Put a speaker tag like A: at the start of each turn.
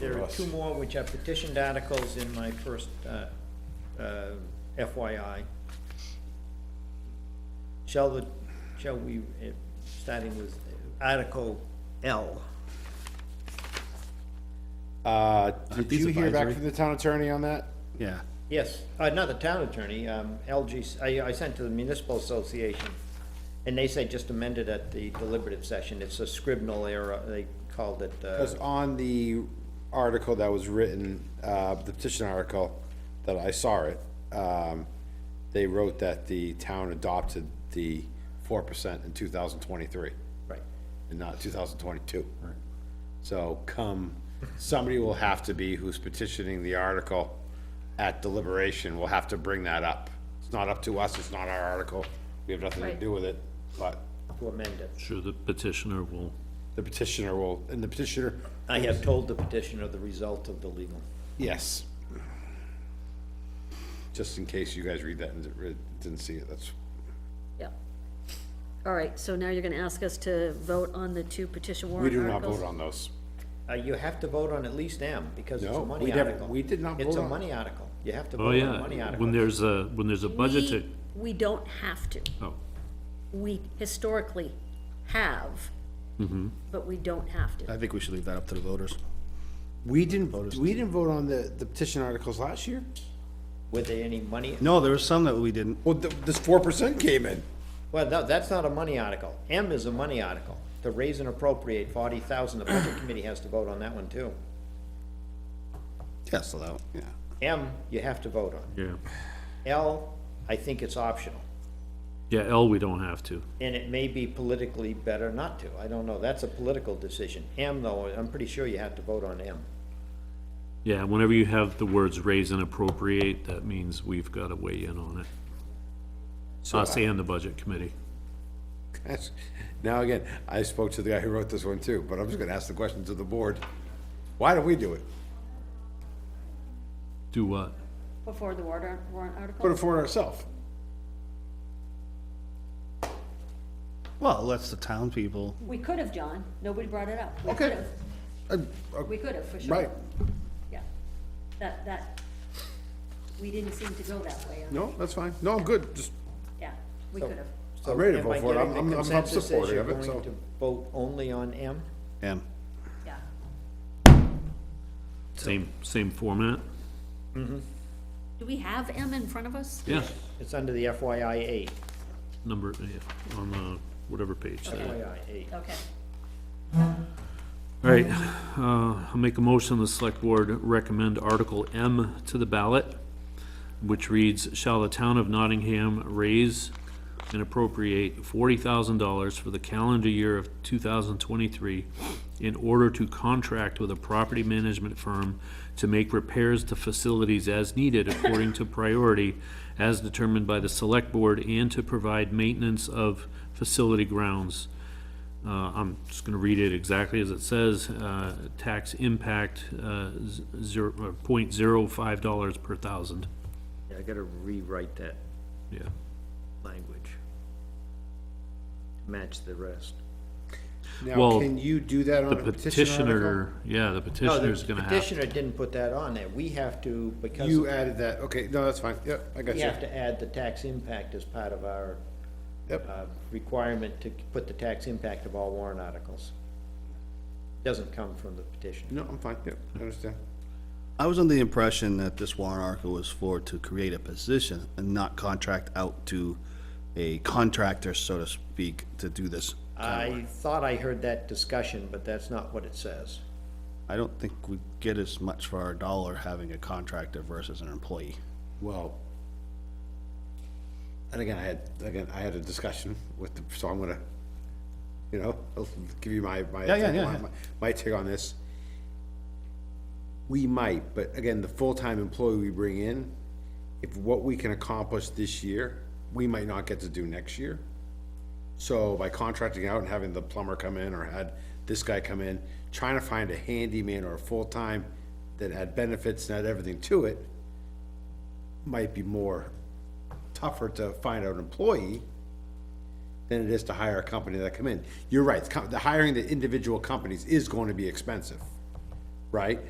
A: There are
B: Yes.
A: two more which are petitioned articles in my first uh, uh, FYI. Shall the, shall we, eh, starting with Article L,
B: Uh,
C: Aren't
B: did
C: these
B: you hear back
C: advisory?
B: from the town attorney on that?
C: Yeah,
A: yes, uh, not the town attorney, um, LG, I, I sent to the municipal association, and they say just amended at the deliberative session, it's a scribnal error, they called it, uh,
B: Because on the article that was written, uh, the petition article, that I saw it, um, they wrote that the town adopted the four percent in two thousand twenty-three
A: right,
B: and not two thousand twenty-two. So come, somebody will have to be who's petitioning the article at deliberation, will have to bring that up. It's not up to us, it's not our article, we have nothing to
D: Right.
B: do with it, but
A: to amend it.
C: sure, the petitioner will,
B: the petitioner will, and the petitioner,
A: I have told the petitioner the result of the legal.
B: yes. Just in case you guys read that and didn't- didn't see it, that's,
D: yeah. All right, so now you're gonna ask us to vote on the two petition
B: we
D: warrant
B: do not
D: articles?
B: vote on those.
A: Uh, you have to vote on at least M, because it's a
B: No,
A: money
B: we never-
A: article.
B: we did not
A: It's
B: vote
A: a
B: on-
A: money article. You have to
C: oh,
A: vote on a money
C: yeah, when
A: article.
C: there's a, when there's a budget to,
D: We, we don't have to.
C: oh,
D: We historically have,
B: Mm-hmm.
D: but we don't have to.
E: I think we should leave that up to the voters.
B: We didn't, we didn't vote on the, the petition articles last year?
A: Were there any money?
E: No, there was some that we didn't.
B: Well, th- this four percent came in.
A: Well, no, that's not a money article. M is a money article. To raise and appropriate forty thousand, the budget committee has to vote on that one too.
E: Yeah, so that,
B: Yeah,
A: M, you have to vote on.
C: yeah.
A: L, I think it's optional,
C: Yeah, L, we don't have to.
A: and it may be politically better not to. I don't know. That's a political decision. M though, I'm pretty sure you have to vote on M.
C: Yeah, whenever you have the words raise and appropriate, that means we've got to weigh in on it. Us and the budget committee.
B: That's- Now, again, I spoke to the guy who wrote this one too, but I'm just gonna ask the question to the board. Why do we do it?
C: Do what?
D: Before the warrant, warrant
B: Put it
D: article?
B: for ourselves.
E: well, that's the town people.
D: We could have, John. Nobody brought it up. We
B: Okay.
D: could've.
B: Uh, uh,
D: We could have, for sure.
B: Right,
D: Yeah. That, that, we didn't seem to go that way. on-
B: no, that's fine. No, I'm good, just,
D: Yeah, we could have.
A: So
B: I'm ready to
A: am
B: vote
A: I
B: for it.
A: getting
B: I'm-
A: the
B: I'm- I'm
A: consensus as
B: supportive
A: you're
B: of it,
A: going
B: so-
A: to Vote only on M?
E: And
D: Yeah.
C: Same, same format?
D: Do we have M in front of us?
C: Yeah,
A: It's under the FYI eight,
C: number, yeah, on the, whatever page that is.
A: FYI eight.
D: Okay.
C: All right, uh, I'll make a motion, the select board recommend Article M to the ballot, which reads, shall the town of Nottingham raise and appropriate forty thousand dollars for the calendar year of two thousand twenty-three in order to contract with a property management firm to make repairs to facilities as needed according to priority as determined by the select board and to provide maintenance of facility grounds. Uh, I'm just gonna read it exactly as it says, uh, tax impact, uh, z- zero, uh, point zero five dollars per thousand.
A: Yeah, I gotta rewrite that
C: Yeah.
A: language. Match the rest.
B: now,
C: Well,
B: can you do that
C: The
B: on a petition article?
C: petitioner, yeah, the
A: No, the
C: petitioner's gonna have,
A: petitioner didn't put that on there. We have to,
B: You
A: because
B: added that, okay, no, that's fine, yep, I got
A: we
B: you.
A: have to add the tax impact as part of our
B: Yep,
A: uh, requirement to put the tax impact of all warrant articles. Doesn't come from the petition.
B: no, I'm fine, yep, I understand.
E: I was under the impression that this warrant article was for to create a position and not contract out to a contractor, so to speak, to do this.
A: I thought I heard that discussion, but that's not what it says.
E: I don't think we get as much for our dollar having a contractor versus an employee.
B: Well, and again, I had, again, I had a discussion with the, so I'm gonna, you know, I'll give you my, my.
E: Yeah, yeah,
B: take
E: yeah,
B: on-
E: yeah.
B: My take on this. We might, but again, the full-time employee we bring in, if what we can accomplish this year, we might not get to do next year. So by contracting out and having the plumber come in or had this guy come in, trying to find a handyman or a full-time that had benefits and had everything to it, might be more tougher to find an employee than it is to hire a company that come in. You're right, it's com- the hiring the individual companies is going to be expensive, right?